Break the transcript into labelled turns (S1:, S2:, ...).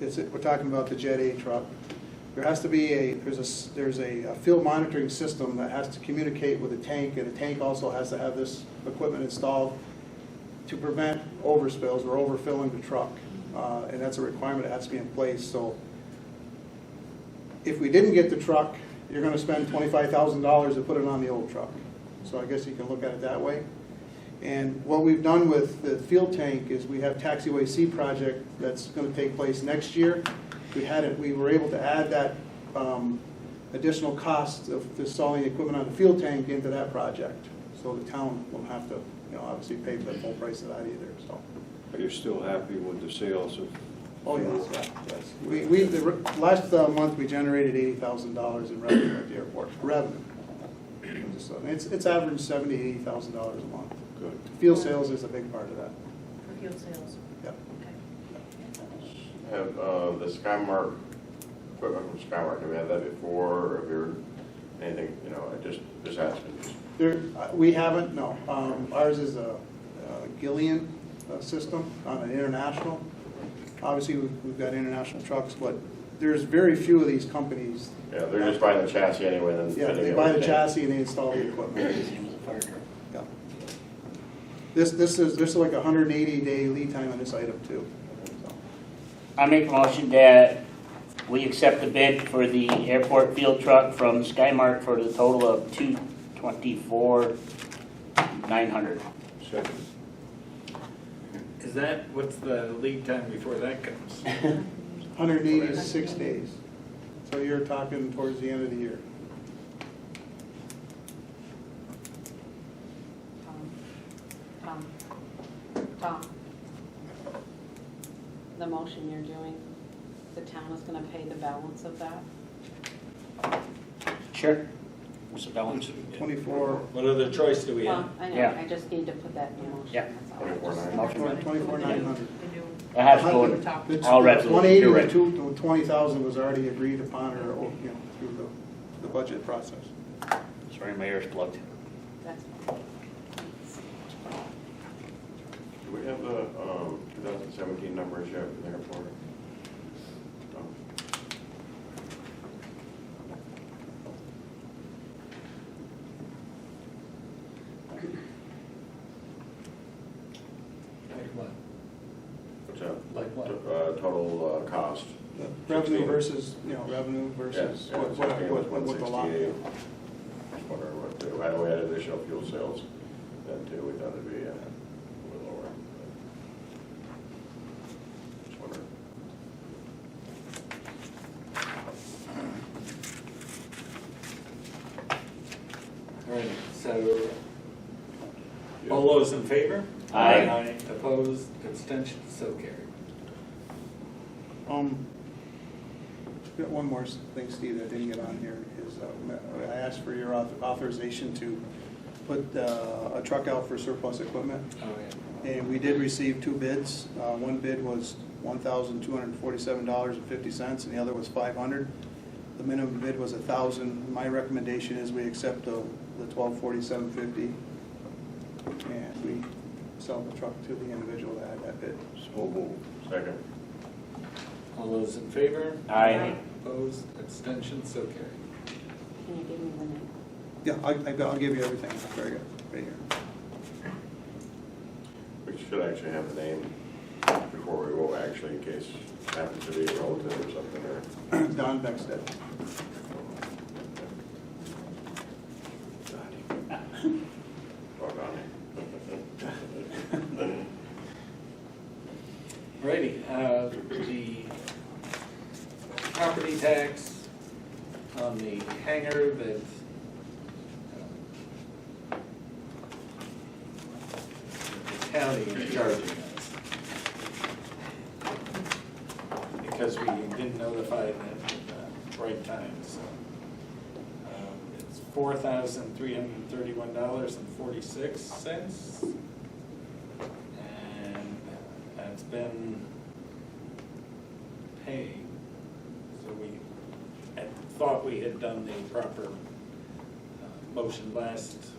S1: is, it- we're talking about the Jet A truck. There has to be a, there's a, s- there's a a field monitoring system that has to communicate with the tank, and the tank also has to have this equipment installed to prevent overspills or overfilling the truck. Uh, And that's a requirement that has to be in place, so if we didn't get the truck, you're gonna spend twenty-five thousand dollars to put it on the old truck. So I guess you can look at it that way. And what we've done with the field tank is we have taxiway C project that's gonna take place next year. We had it, we were able to add that, um, additional cost of installing equipment on the field tank into that project. So the town won't have to, you know, obviously pay the full price of that either, so.
S2: But you're still happy with the sales of?
S1: Oh, yes, yes. We, we, the, re- last uh, month, we generated eighty thousand dollars in revenue at the airport, revenue. Just, uh, It's, it's averaged seventy, eighty thousand dollars a month.
S2: Good.
S1: Fuel sales is a big part of that,
S3: for fuel sales.
S1: yep.
S3: Okay.
S4: Have, uh, the Skymark, equipment from Skymark, have we had that before, or have you, heard anything, you know, I just, just asking.
S1: There, uh, we haven't, no. Um, Ours is a uh, Gillian uh, system on an international. Obviously, we've we've got international trucks, but there's very few of these companies.
S4: Yeah, they're just buying the chassis anyway, and then.
S1: Yeah,
S4: fitting
S1: they
S4: it
S1: buy the
S4: with tank.
S1: chassis and they install the equipment. Yeah. This, this is, this is like a hundred and eighty day lead time on this item too. So,
S5: I make a motion that we accept the bid for the airport field truck from Skymark for the total of two twenty-four, nine hundred.
S2: Second.
S6: Is that, what's the lead time before that comes?
S1: Hundred and eighty is six days. So you're talking towards the end of the year.
S7: Tom, Tom, Tom. The motion you're doing, the town is gonna pay the balance of that?
S5: Sure. What's the balance?
S1: Twenty-four,
S6: What other choice do we have?
S7: Well, I know,
S5: Yeah.
S7: I just need to put that in motion.
S5: Yeah.
S7: that's
S4: Twenty-four
S7: all.
S4: nine.
S5: Motion.
S1: twenty-four nine hundred.
S3: The new-
S5: That has to go, All right.
S1: One eighty
S5: You're
S1: to
S5: right.
S1: two, twenty thousand was already agreed upon or, or, you know, through the, the budget process.
S5: sorry, my ear's plugged.
S7: That's fine.
S4: Do we have the, um, two thousand seventeen numbers yet in the airport? No.
S6: Like what?
S4: What's that?
S6: Like
S4: Uh,
S6: what?
S4: total, uh, cost.
S1: The Revenue
S4: 16.
S1: versus, you know, revenue versus
S4: Yes, yeah,
S1: what, what,
S4: 16 was
S1: what what the lot.
S4: 168. Just wondering what, they- I know we had additional fuel sales then too, we thought it'd be uh, a little lower. but Just wondering.
S6: All right, so all those in favor?
S5: Aye.
S6: Opposed, abstentions, so carried.
S1: Um, got one more s- thing, Steve, that I didn't get on here, is uh, I asked for your auth- authorization to put uh, a truck out for surplus equipment,
S6: Oh, yeah.
S1: and we did receive two bids. Uh, One bid was one thousand two hundred and forty-seven dollars and fifty cents, and the other was five hundred. The minimum bid was a thousand. My recommendation is we accept the twelve forty-seven fifty, and we sell the truck to the individual that had that bid.
S2: So moved.
S4: Second.
S6: All those in favor?
S5: Aye.
S6: Opposed, abstentions, so carried.
S7: Can you give me the name?
S1: Yeah, I- I- I'll give you everything, very good, right here.
S4: We should actually have the name before we go, actually, in case it happens to be a relative or something, or.
S1: Don Beckstead.
S4: Or Donnie.
S6: Righty, uh, the property tax on the hangar that, uh, the county is charging us. Because we didn't notify them at the right time, so. um, It's four thousand three hundred and thirty-one dollars and forty-six cents. And that's been paid. So we, I thought we had done the proper uh, motion last